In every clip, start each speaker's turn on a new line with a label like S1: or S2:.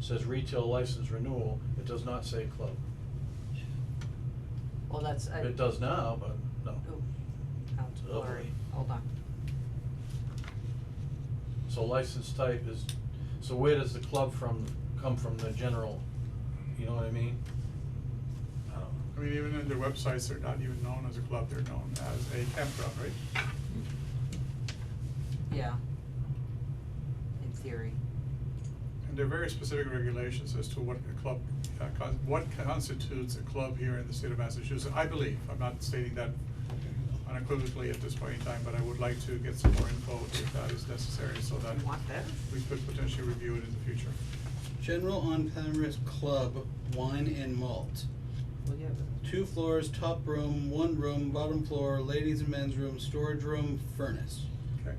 S1: says retail license renewal, it does not say club.
S2: Well, that's, I. Oh.
S1: It does now, but no.
S2: Ooh, how it's
S1: Oh,
S2: blurry,
S1: boy.
S2: hold on.
S1: So license type is, so where does the club from, come from the general, you know what I mean? I don't know.
S3: I mean, even in their websites, they're not even known as a club, they're known as a campground, right?
S2: Yeah. In theory.
S3: And there are very specific regulations as to what a club, uh, con- what constitutes a club here in the state of Massachusetts, I believe. I'm not stating that unequivocally at this point in time, but I would like to get some more info if that is necessary, so that
S2: You want this?
S3: we could potentially review it in the future.
S4: General on Commerce Club, wine and malt.
S2: Well, yeah, but-
S4: Two floors, top room, one room, bottom floor, ladies and men's room, storage room, furnace.
S3: Okay.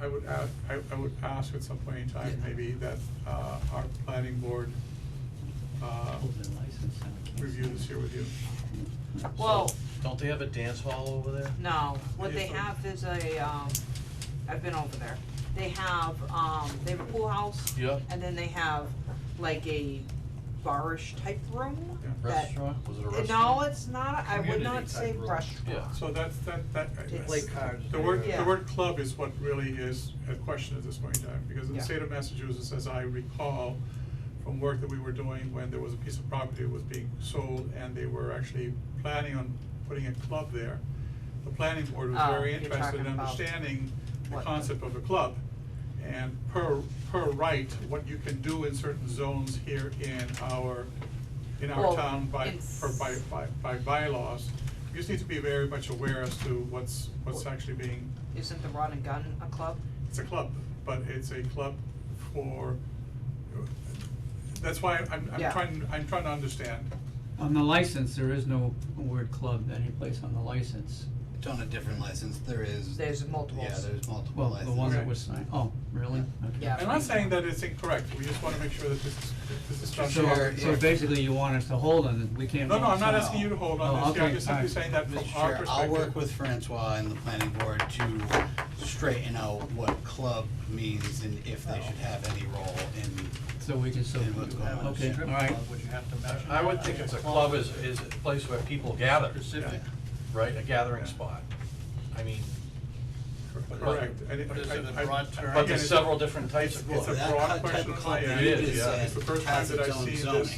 S3: I would add, I, I would ask at some point in time,
S4: Yeah.
S3: maybe that, uh, our planning board, uh, review this here with you.
S2: Well,
S1: Don't they have a dance hall over there?
S2: no, what
S3: Yeah,
S2: they
S3: so-
S2: have is a, um, I've been over there. They have, um, they have a pool house.
S1: Yeah.
S2: And then they have like a barish type room
S3: Yeah.
S2: that.
S1: Restaurant, was it a
S2: Uh,
S1: restaurant?
S2: No, it's not, I would not
S5: Community-type
S2: say
S5: room.
S2: restaurant.
S1: Yeah.
S3: So that's, that, that.
S2: It's-
S5: Play cards.
S3: The word,
S2: Yeah.
S3: the word club is what really is a question at this point in time, because in the
S2: Yeah.
S3: state of Massachusetts, as I recall, from work that we were doing when there was a piece of property that was being sold and they were actually planning on putting a club there, the planning board was
S2: Oh,
S3: very
S2: you're
S3: interested in
S2: talking about
S3: understanding the
S2: what-
S3: concept of a club. And per, per right, what you can do in certain zones here in our, in our
S2: Well,
S3: town by,
S2: it's-
S3: per by, by, by bylaws, you just need to be very much aware as to what's, what's
S2: Well-
S3: actually being,
S2: Isn't the Rod and Gun a club?
S3: it's a club, but it's a club for, that's why I'm, I'm
S2: Yeah.
S3: trying, I'm trying to understand.
S6: On the license, there is no word club anyplace on the license.
S4: It's on a different license, there is.
S2: There's multiples.
S4: Yeah, there's multiple
S6: Well,
S4: licenses.
S6: the one that
S3: Okay.
S6: was signed, oh, really? Okay.
S2: Yeah.
S3: I'm not saying that it's incorrect, we just wanna make sure that this is, this is done
S6: So, uh,
S4: Sure,
S6: so
S4: yeah.
S6: basically you want us to hold on it, we can't.
S3: No, no, I'm
S6: vote
S3: not
S6: on it.
S3: asking you to hold on
S6: Oh,
S3: this, yeah, I'm
S6: okay,
S3: just simply
S6: alright.
S3: saying that from
S4: Mr.
S3: our
S4: Chair,
S3: perspective.
S4: I'll work with Francois and the planning board to straighten out what club means and if they should have any role in,
S6: So we can still,
S4: And what's going on.
S6: okay,
S4: Strip
S6: alright,
S5: Would you have to mention?
S1: I would
S5: that?
S1: think it's a club is, is a place where people gather,
S5: Specific.
S1: right, a gathering
S3: Yeah.
S1: spot. I mean,
S5: But-
S3: Correct, and it,
S5: But is it
S3: I,
S5: a broad
S3: I,
S5: term?
S1: but
S3: again,
S1: there's
S3: it's-
S1: several different types of
S3: It's a
S1: clubs.
S4: that
S3: broad
S4: type of
S3: question on
S4: club
S3: my
S4: that
S3: end.
S1: you just said
S3: It's the first time
S4: has
S3: that I
S4: its own
S3: see this
S4: zoning.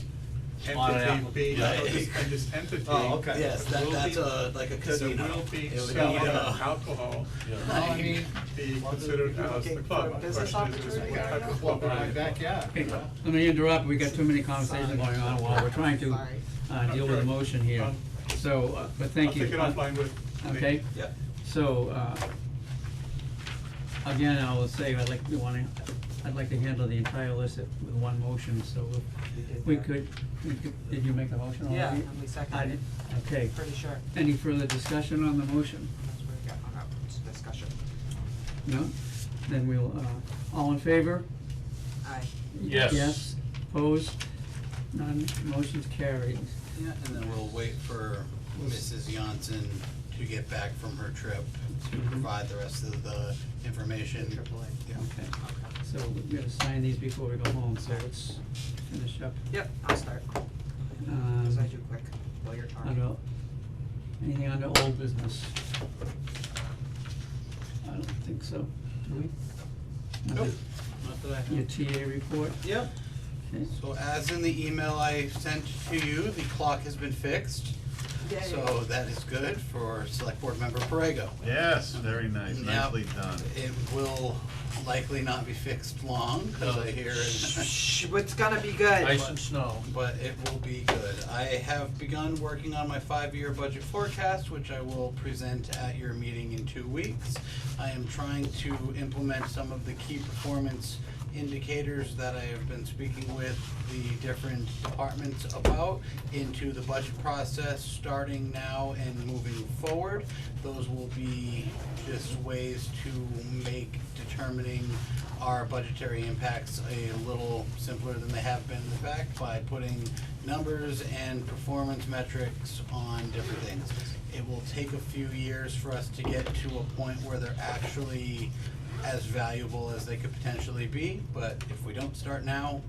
S5: On an
S3: entity
S5: app-
S3: being,
S1: yeah.
S3: and this- and this entity.
S5: Oh, okay.
S4: Yes,
S3: that
S4: that-
S3: will
S4: that's
S3: be-
S4: a- like a casino.
S3: That will be
S4: It would be,
S3: selling
S4: uh,
S3: alcohol,
S1: Yeah.
S5: Well, I mean,
S3: be considered
S5: Well,
S3: as
S5: the-
S3: the club. My
S2: business
S3: question is, is
S2: opportunity
S3: what
S5: I
S3: type
S5: got a
S3: of
S5: club in
S3: are
S5: my
S3: you?
S5: backyard,
S6: Okay,
S5: you know?
S6: let me interrupt, we got too many conversations going on while we're trying to,
S2: Sorry.
S6: uh, deal with the
S3: Okay.
S6: motion here.
S3: Um,
S6: So, uh, but thank you.
S3: I'll
S6: Uh,
S3: take it offline with. Nate.
S6: Okay?
S4: yeah.
S6: So, uh, again, I will say, I'd like, we wanna, I'd like to handle the entire list at- with one motion, so if we could, we could- did you make a motion
S2: Yeah,
S6: already?
S2: and we seconded
S6: I
S2: it.
S6: did, okay.
S2: Pretty sure.
S6: Any further discussion on the motion?
S2: That's where we got hung up, it's a discussion.
S6: No? Then we'll, uh, all in favor?
S2: Aye.
S1: Yes.
S6: Yes, opposed? None, motion's carried.
S4: Yeah, and then we'll wait for Mrs. Johnson to get back from her trip to
S7: Mm-hmm.
S4: provide the rest of the information.
S2: Triple A.
S4: Yeah.
S6: Okay, so we're gonna sign these before we go home, so let's finish up.
S2: Yep, I'll start,
S6: Um,
S2: cause I do quick, while you're talking.
S6: Under, anything under old business? I don't think so, do we?
S4: Nope, not that I
S6: Your
S4: have.
S6: TA report?
S4: Yep.
S6: Okay.
S4: So as in the email I sent to you, the clock has been fixed.
S2: Yay.
S4: So that is good for Select Board Member Borrego.
S7: Yes, very nice,
S4: Now,
S7: nicely done.
S4: It will likely not be fixed long, because I hear,
S2: Shh, it's gonna be good.
S1: Ice and snow.
S4: but it will be good. I have begun working on my five-year budget forecast, which I will present at your meeting in two weeks. I am trying to implement some of the key performance indicators that I have been speaking with the different departments about into the budget process, starting now and moving forward. Those will be just ways to make determining our budgetary impacts a little simpler than they have been in the back by putting numbers and performance metrics on different things. It will take a few years for us to get to a point where they're actually as valuable as they could potentially be, but if we don't start now,